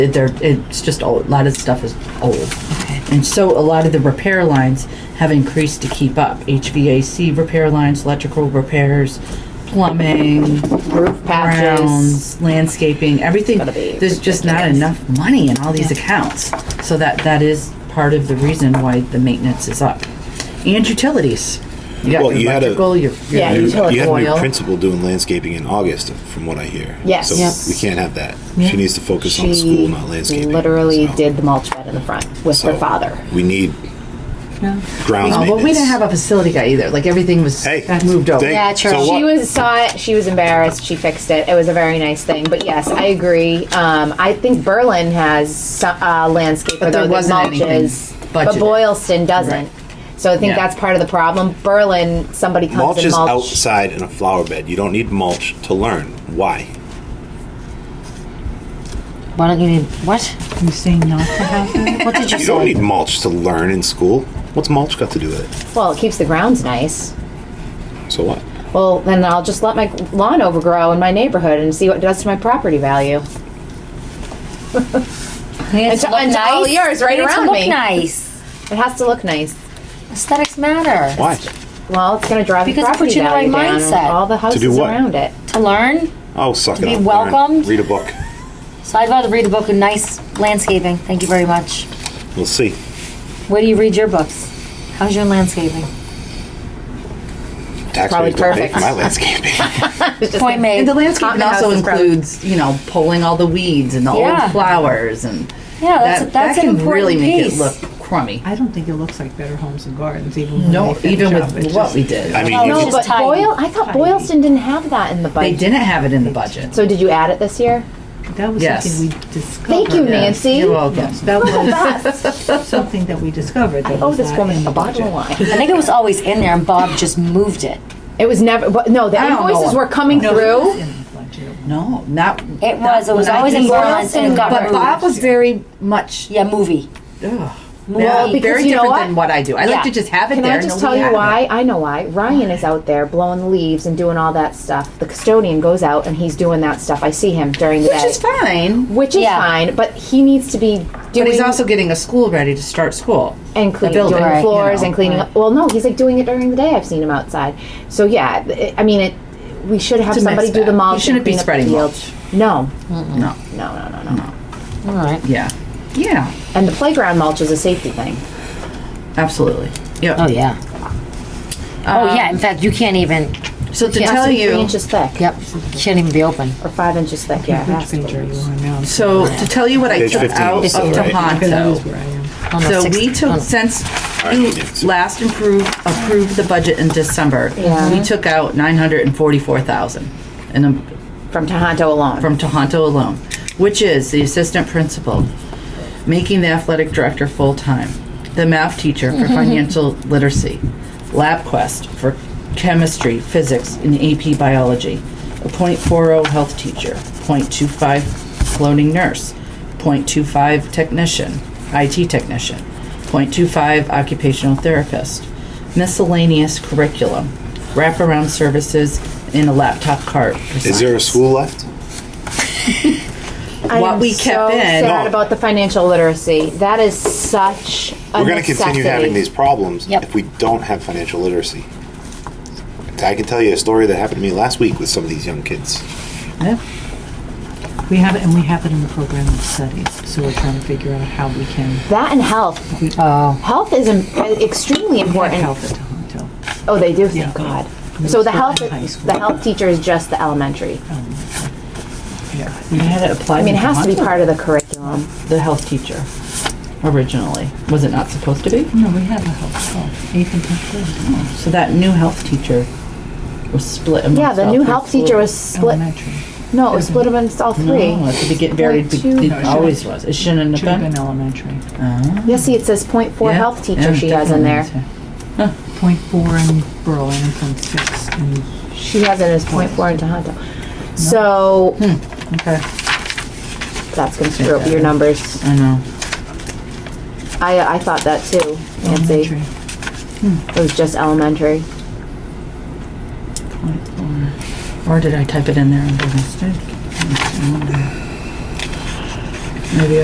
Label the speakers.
Speaker 1: It- They're, it's just old. A lot of stuff is old.
Speaker 2: Okay.
Speaker 1: And so a lot of the repair lines have increased to keep up. HVAC repair lines, electrical repairs, plumbing,
Speaker 2: Roof patches.
Speaker 1: grounds, landscaping, everything.
Speaker 2: Gotta be
Speaker 1: There's just not enough money in all these
Speaker 2: Yeah.
Speaker 1: accounts. So that, that is part of the reason why the maintenance is up. And utilities. You got
Speaker 3: Well,
Speaker 1: your
Speaker 3: you had a-
Speaker 1: electrical, your. Uh,
Speaker 2: Yeah,
Speaker 3: You,
Speaker 2: you took
Speaker 3: you had a new
Speaker 2: oil.
Speaker 3: principal doing landscaping in August, from what I hear.
Speaker 2: Yes.
Speaker 3: So
Speaker 2: Yes.
Speaker 3: we can't have that.
Speaker 1: Yeah.
Speaker 3: She needs to focus on
Speaker 2: She
Speaker 3: school, not landscaping.
Speaker 2: literally
Speaker 3: so-
Speaker 2: did the mulch bed in the front with
Speaker 3: so
Speaker 2: her father.
Speaker 3: We need grounds
Speaker 1: Oh,
Speaker 3: maintenance.
Speaker 1: but we didn't have a facility guy either. Like everything was
Speaker 3: Hey,
Speaker 1: moved over.
Speaker 3: they-
Speaker 2: Yeah, true.
Speaker 3: So what?
Speaker 2: she was saw it. She was embarrassed. She fixed it. It was a very nice thing. But yes, I agree. Um, I think Berlin has so- uh, landscaper
Speaker 1: But there
Speaker 2: though
Speaker 1: wasn't
Speaker 2: that mulches,
Speaker 1: anything
Speaker 2: but
Speaker 1: budgeted.
Speaker 2: Boylston doesn't.
Speaker 1: Right.
Speaker 2: So I think
Speaker 1: Yeah.
Speaker 2: that's part of the problem. Berlin, somebody comes
Speaker 3: mulch
Speaker 2: and
Speaker 3: is
Speaker 2: mulch.
Speaker 3: outside in a flower bed. You don't need mulch to learn. Why?
Speaker 4: Why don't you need what?
Speaker 1: You saying not to have that?
Speaker 4: What did you
Speaker 3: You don't
Speaker 4: say?
Speaker 3: need mulch to learn in school. What's mulch got to do with
Speaker 2: Well, it keeps the grounds nice.
Speaker 3: it? So what?
Speaker 2: Well, then I'll just let my lawn overgrow in my neighborhood and see what it does to my property value.
Speaker 4: And
Speaker 2: to- and to all yours right around
Speaker 4: look
Speaker 2: me.
Speaker 4: nice.
Speaker 2: It has to look nice.
Speaker 4: Aesthetics matter.
Speaker 3: Why?
Speaker 2: Well, it's going to drive
Speaker 4: Because
Speaker 2: the
Speaker 4: it
Speaker 2: property
Speaker 4: puts you
Speaker 2: value
Speaker 4: in the right
Speaker 2: down and
Speaker 4: mindset.
Speaker 2: all the houses
Speaker 3: do what?
Speaker 2: around it.
Speaker 4: To learn.
Speaker 3: Oh, suck it
Speaker 4: be
Speaker 3: up, Lauren.
Speaker 4: welcomed.
Speaker 3: Read a book.
Speaker 4: So I'd rather read a book with nice landscaping. Thank you very much.
Speaker 3: We'll see.
Speaker 4: Where do you read your books? How's your landscaping?
Speaker 3: Taxpayers don't pay
Speaker 2: perfect.
Speaker 3: for my landscaping.
Speaker 4: Point made.
Speaker 1: And the landscaping
Speaker 2: Cotton house
Speaker 1: also
Speaker 2: is probably-
Speaker 1: includes, you know, pulling all the weeds and the
Speaker 4: Yeah.
Speaker 1: old flowers and
Speaker 4: Yeah, that's-
Speaker 1: that,
Speaker 4: that's
Speaker 1: that
Speaker 4: an
Speaker 1: can really
Speaker 4: important
Speaker 1: make it
Speaker 4: piece.
Speaker 1: look crummy.
Speaker 5: I don't think it looks like Better Homes and Gardens, even when
Speaker 1: No,
Speaker 5: they finish
Speaker 1: even
Speaker 5: up. It
Speaker 1: with
Speaker 5: just-
Speaker 1: what we did,
Speaker 3: I mean,
Speaker 4: Oh,
Speaker 3: you
Speaker 4: no,
Speaker 3: can-
Speaker 4: It's
Speaker 2: But
Speaker 4: tidy.
Speaker 2: Boyle, I thought Boylston didn't have that in the
Speaker 1: they
Speaker 2: budget.
Speaker 1: didn't have it in the budget.
Speaker 2: So did you add it this year?
Speaker 5: That was
Speaker 1: Yes.
Speaker 5: something we discovered.
Speaker 2: Thank you,
Speaker 1: Yeah.
Speaker 2: Nancy.
Speaker 1: You're welcome.
Speaker 5: Yes, that was something that we discovered. That
Speaker 2: Oh,
Speaker 5: was
Speaker 2: this
Speaker 5: not in
Speaker 2: woman
Speaker 5: the
Speaker 2: a bottle of
Speaker 5: budget.
Speaker 2: wine.
Speaker 4: I think it was always in there, and Bob just moved it.
Speaker 2: It was never. But no, the
Speaker 1: I don't
Speaker 2: invoices
Speaker 1: know.
Speaker 2: were coming
Speaker 5: No, it was
Speaker 2: through.
Speaker 5: in the budget.
Speaker 1: No, not.
Speaker 4: It was. It was
Speaker 1: when I
Speaker 4: always in
Speaker 1: did-
Speaker 4: bronze, and it got
Speaker 1: But
Speaker 4: removed.
Speaker 1: Bob was very much.
Speaker 4: yeah, movie.
Speaker 1: Ugh,
Speaker 2: Well,
Speaker 1: very- very
Speaker 2: because you know
Speaker 1: different
Speaker 2: what?
Speaker 1: than what I do. I
Speaker 4: Yeah.
Speaker 1: like to just have it
Speaker 2: Can
Speaker 1: there.
Speaker 2: I
Speaker 1: and
Speaker 2: just
Speaker 1: nobody
Speaker 2: tell you
Speaker 1: had it.
Speaker 2: why? I know why. Ryan is out there blowing the leaves and doing all that stuff. The custodian goes out and he's doing that stuff. I see him during the
Speaker 1: Which
Speaker 2: day,
Speaker 1: is fine.
Speaker 2: which is
Speaker 4: Yeah.
Speaker 2: fine. But he needs to be doing
Speaker 1: But he's also getting a school ready to start school.
Speaker 2: and
Speaker 1: The
Speaker 2: cleaning,
Speaker 1: building,
Speaker 2: doing
Speaker 1: you
Speaker 2: floors
Speaker 1: know.
Speaker 2: and cleaning. up. Well, no, he's like doing it during the day. I've seen him outside. So yeah, it, I mean, it. We should have
Speaker 1: It's a
Speaker 2: somebody
Speaker 1: mixed
Speaker 2: do the
Speaker 1: bag.
Speaker 2: mulch.
Speaker 1: You shouldn't
Speaker 2: and
Speaker 1: be
Speaker 2: clean up the
Speaker 1: spreading
Speaker 2: fields. No,
Speaker 1: No,
Speaker 2: no, no, no, no. no.
Speaker 4: All right.
Speaker 1: yeah, yeah,
Speaker 2: And the playground mulch is a safety thing.
Speaker 1: absolutely. Yep.
Speaker 4: Oh yeah. oh yeah. In fact, you can't even.
Speaker 1: So to
Speaker 2: Has
Speaker 1: tell
Speaker 2: to be
Speaker 1: you,
Speaker 2: three inches thick
Speaker 4: Yep. Can't even be open.
Speaker 2: or five inches thick. Yeah, it
Speaker 5: Which
Speaker 2: has to
Speaker 5: picture are
Speaker 2: be.
Speaker 5: you on now?
Speaker 1: So to tell you what I
Speaker 3: Page
Speaker 1: took
Speaker 3: 15
Speaker 1: out of
Speaker 3: also, right?
Speaker 1: Tohoto.
Speaker 5: Because this is where I am.
Speaker 4: Oh, no,
Speaker 1: So
Speaker 4: six-
Speaker 1: we
Speaker 4: oh,
Speaker 1: took,
Speaker 4: no.
Speaker 1: since
Speaker 3: All
Speaker 1: you
Speaker 3: right, yes.
Speaker 1: last improved, approved the budget in December,
Speaker 2: Yeah.
Speaker 1: we took out nine hundred and forty-four thousand and um,
Speaker 2: from Tohoto alone.
Speaker 1: from Tohoto alone, which is the assistant principal, making the athletic director full-time, the math teacher for financial literacy, LabQuest for chemistry, physics, and AP biology, a .40 health teacher, .25 floating nurse, .25 technician, IT technician, .25 occupational therapist, miscellaneous curriculum, wraparound services, and a laptop cart. for
Speaker 3: Is there a
Speaker 1: science.
Speaker 3: school left?
Speaker 2: I
Speaker 1: what
Speaker 2: am
Speaker 1: we kept
Speaker 2: so
Speaker 1: in- Oh.
Speaker 2: Sad
Speaker 3: No.
Speaker 2: about the financial literacy. That is such. A
Speaker 3: We're going to continue
Speaker 2: necessity.
Speaker 3: having these problems
Speaker 4: Yep.
Speaker 3: if we don't have financial literacy. I can tell you a story that happened to me last week with some of these young kids.
Speaker 1: Yeah.
Speaker 5: We have it, and we have it in the program of studies, so we're trying to figure out how we can
Speaker 2: That and health.
Speaker 4: Oh.
Speaker 2: Health is im- extremely
Speaker 5: help
Speaker 2: important.
Speaker 5: at Tohoto.
Speaker 2: Oh, they do.
Speaker 5: Yeah.
Speaker 2: Thank God.
Speaker 5: Middle
Speaker 2: So the
Speaker 5: school
Speaker 2: health,
Speaker 5: and high school.
Speaker 2: the health teacher is just the elementary.
Speaker 5: Yeah.
Speaker 1: We had it applied.
Speaker 2: I mean, it
Speaker 1: in
Speaker 2: has to be
Speaker 1: Tohoto.
Speaker 2: part of the curriculum.
Speaker 1: The health teacher originally. Was it not supposed to be?
Speaker 5: No, we have a help, help, eighth and tenth grade,
Speaker 1: So that new health teacher was split amongst
Speaker 2: Yeah, the
Speaker 1: all
Speaker 2: new
Speaker 1: three
Speaker 2: health teacher
Speaker 1: schools.
Speaker 2: was split.
Speaker 5: elementary.
Speaker 2: No, it was split amongst all three.
Speaker 1: No, at the begin, very,
Speaker 2: Point
Speaker 1: be-
Speaker 2: two.
Speaker 1: it
Speaker 2: No, it
Speaker 1: always was. It shouldn't have
Speaker 5: Should have
Speaker 1: been. Uh-huh.
Speaker 5: been elementary.
Speaker 2: Yeah, see, it says point four
Speaker 1: Yeah,
Speaker 2: health teacher
Speaker 1: yeah,
Speaker 2: she has in
Speaker 1: definitely
Speaker 2: there.
Speaker 1: is here.
Speaker 5: Point four in Berlin, and point six in
Speaker 2: She has it as point four in Tohoto. So
Speaker 1: Okay,
Speaker 2: that's going to screw up your numbers.
Speaker 1: I know.
Speaker 2: I I thought that too, Nancy.
Speaker 5: elementary.
Speaker 2: It was just elementary.
Speaker 1: Or did I type it in there and do a mistake?
Speaker 5: Maybe